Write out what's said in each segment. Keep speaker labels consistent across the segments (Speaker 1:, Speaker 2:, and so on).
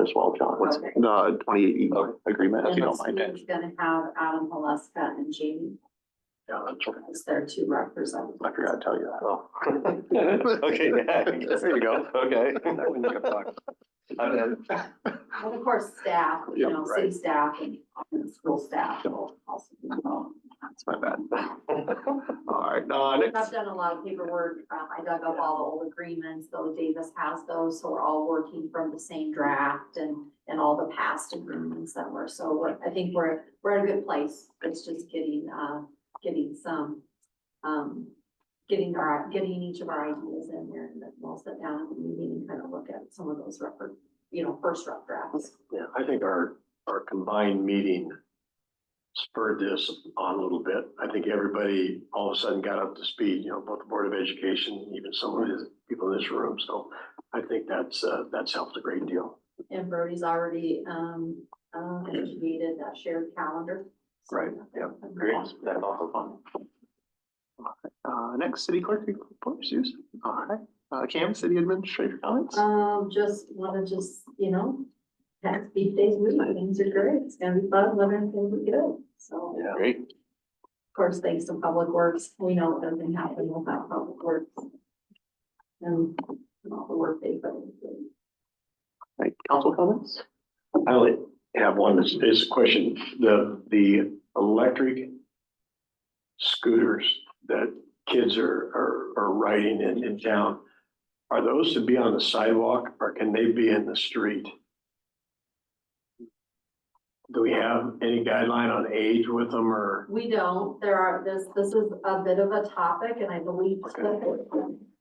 Speaker 1: as well, John.
Speaker 2: What's-
Speaker 1: The twenty-eight E agreement, if you don't mind.
Speaker 2: He's gonna have Adam Haluska and Jamie
Speaker 1: Yeah, that's right.
Speaker 2: as their two representatives.
Speaker 1: I forgot to tell you that.
Speaker 3: Oh. Okay, yeah, there you go, okay. I mean,
Speaker 2: And of course, staff, you
Speaker 1: Yeah,
Speaker 2: know, city staff and and school staff will also be involved.
Speaker 1: That's my bad. All right, uh, next,
Speaker 2: I've done a lot of paperwork. Um, I dug up all the old agreements, though Davis has those, so we're all working from the same draft and, and all the past agreements that were, so we're- I think we're, we're in a good place. It's just getting, uh, getting some, um, getting our, getting each of our ideas in there and then we'll sit down at the meeting and kind of look at some of those record, you know, first rough drafts.
Speaker 4: Yeah, I think our, our combined meeting spurred this on a little bit. I think everybody all of a sudden got up to speed, you know, both the Board of Education, even some of the people in this room. So I think that's, uh, that's helped a great deal.
Speaker 2: And Brody's already, um, uh, created that shared calendar. So-
Speaker 4: Right, yeah,
Speaker 3: Great, that's awesome.
Speaker 1: uh, next city clerk reports, Susan. All right, uh, Cam, city administrator comments?
Speaker 2: Um, just wanna just, you know, tax beef days, week, things are great, it's gonna be fun, let everything we go, so.
Speaker 4: Yeah.
Speaker 1: Great.
Speaker 2: Of course, thanks to Public Works, we know it doesn't happen without Public Works. And and all the work they've done.
Speaker 1: All right, council comments?
Speaker 4: I only have one, it's, it's a question, the, the electric scooters that kids are, are, are riding in, in town, are those to be on the sidewalk or can they be in the street? Do we have any guideline on age with them or?
Speaker 2: We don't, there are, this, this is a bit of a topic, and I believe Clifford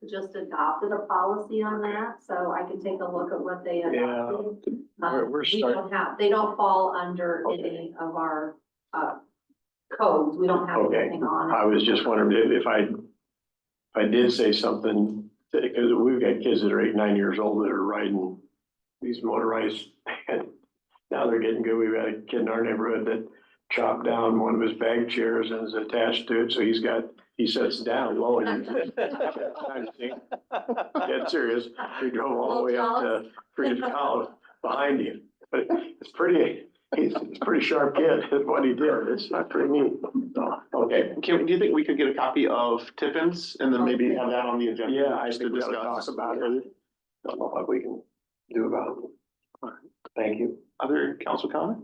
Speaker 2: just adopted a policy on that, so I can take a look at what they
Speaker 4: Yeah.
Speaker 2: adopted.
Speaker 4: We're-
Speaker 2: Um,
Speaker 4: we're
Speaker 2: We
Speaker 4: starting-
Speaker 2: don't have, they don't fall under any of our, uh, codes, we don't have
Speaker 4: Okay.
Speaker 2: anything on it.
Speaker 4: I was just wondering if if I, if I did say something, because we've got kids that are eight, nine years old that are riding these motorized. and Now they're getting good. We've got a kid in our neighborhood that chopped down one of his bag chairs and is attached to it, so he's got, he sits down low and. Dead serious. He drove all the way up to Freedom College behind him. But it's pretty, he's, he's a pretty sharp kid, is what he did. It's not pretty neat. So, Okay.
Speaker 1: Kim, do you think we could get a copy of Tippins and then maybe have that on the agenda?
Speaker 4: Yeah, I
Speaker 1: just to
Speaker 4: think we ought to
Speaker 1: discuss?
Speaker 4: talk about it. Don't know what we can do about it.
Speaker 1: Alright.
Speaker 4: Thank you.
Speaker 1: Other council comment?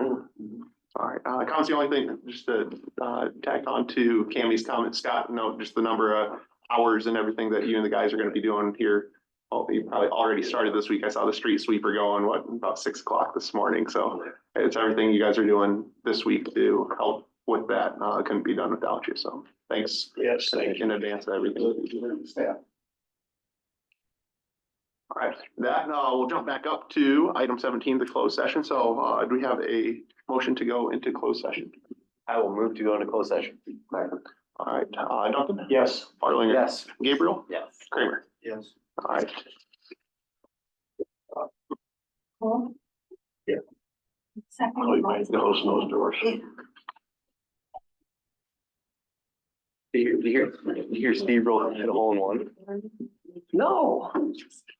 Speaker 1: All right, uh, Con's the only thing, just to, uh, tack on to Cammy's comment, Scott, no, just the number of hours and everything that you and the guys are gonna be doing here. Oh, you probably already started this week. I saw the street sweeper going, what, about six o'clock this morning, so it's everything you guys are doing this week to help with that. Uh, it couldn't be done without you, so thanks
Speaker 4: Yes, thank you.
Speaker 1: in advance of everything.
Speaker 4: Yeah.
Speaker 1: All right, that, uh, we'll jump back up to item seventeen, the closed session. So, uh, do we have a motion to go into closed session?
Speaker 3: I will move to go into closed session.
Speaker 1: All right, uh, Duncan?
Speaker 4: Yes.
Speaker 1: Farlinger?
Speaker 3: Yes.
Speaker 1: Gabriel?
Speaker 3: Yes.
Speaker 1: Kramer?
Speaker 4: Yes.
Speaker 1: All right.
Speaker 4: Chloe might close those doors.
Speaker 3: Do you, do you hear, do you hear Steve Roland hit a hole in one?
Speaker 4: No.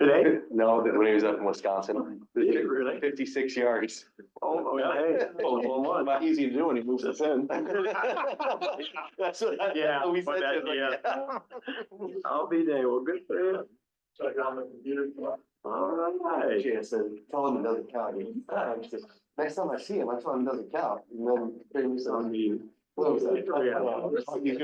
Speaker 4: Today?
Speaker 3: No, that when he was up in Wisconsin,
Speaker 4: Really?
Speaker 3: fifty-six yards.
Speaker 4: Oh, yeah, hey. Oh, well, one.
Speaker 3: Not easy to do when he moves us in. That's what. I-
Speaker 4: Yeah,
Speaker 3: we
Speaker 4: but
Speaker 3: said
Speaker 4: that-
Speaker 3: to him, like,
Speaker 4: I'll be there. Well, good for you. All right.
Speaker 5: Yes, and tell him another cow. dude. Ah, I'm just- Next time I see him, I tell him another cow. And then brings on the.
Speaker 4: Yeah.
Speaker 5: What was that?